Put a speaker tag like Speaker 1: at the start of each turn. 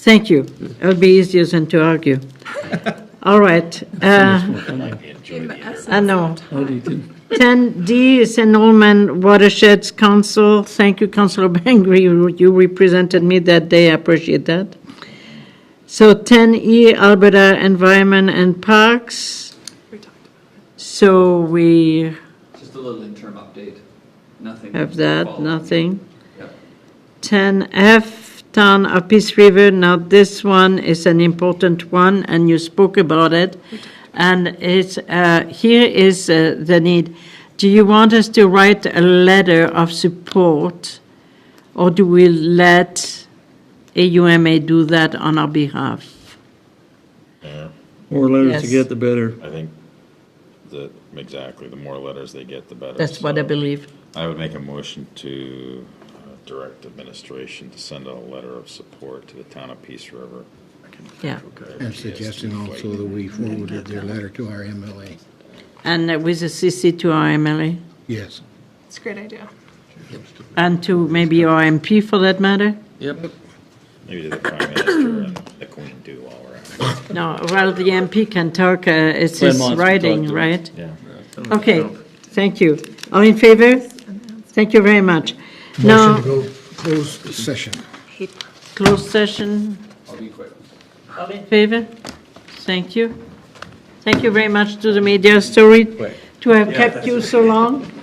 Speaker 1: Thank you. It would be easier than to argue. All right. uh, I know. 10D is enrollment watersheds council. Thank you, Councilor Bangri. You- You represented me that day. I appreciate that. So 10E, Alberta Environment and Parks. So we
Speaker 2: Just a little interim update, nothing.
Speaker 1: have that,
Speaker 2: formal.
Speaker 1: nothing.
Speaker 2: Yep.
Speaker 1: 10F, Town of Peace River. Now, this one is an important one, and you spoke about it. And it's, uh, here is uh, the need. Do you want us to write a letter of support, or do we let AUMA do that on our behalf?
Speaker 3: More letters to
Speaker 1: Yes.
Speaker 3: get, the better.
Speaker 4: I think that, exactly, the more letters they get, the better.
Speaker 1: That's what I
Speaker 4: So
Speaker 1: believe.
Speaker 4: I would make a motion to uh, direct administration to send out a letter of support to the town of Peace River.
Speaker 1: Yeah.
Speaker 5: I'm suggesting also that we forwarded their letter to our MLA.
Speaker 1: And uh, with a CC to our MLA,
Speaker 5: Yes.
Speaker 6: It's a great idea.
Speaker 1: and to maybe our MP for that matter?
Speaker 4: Maybe to the prime minister and the queen too while we're at it.
Speaker 1: No, well, the MP can talk, uh, it's his
Speaker 3: Claremont can talk
Speaker 1: writing,
Speaker 3: to it.
Speaker 1: right?
Speaker 4: Yeah.
Speaker 1: Okay, thank you. All in favor? Thank you very much.
Speaker 5: Motion to
Speaker 1: Now,
Speaker 5: go closed session.
Speaker 1: closed session,
Speaker 2: I'll be quick.
Speaker 1: all in favor? Thank you. Thank you very much to the media story to have kept you so long.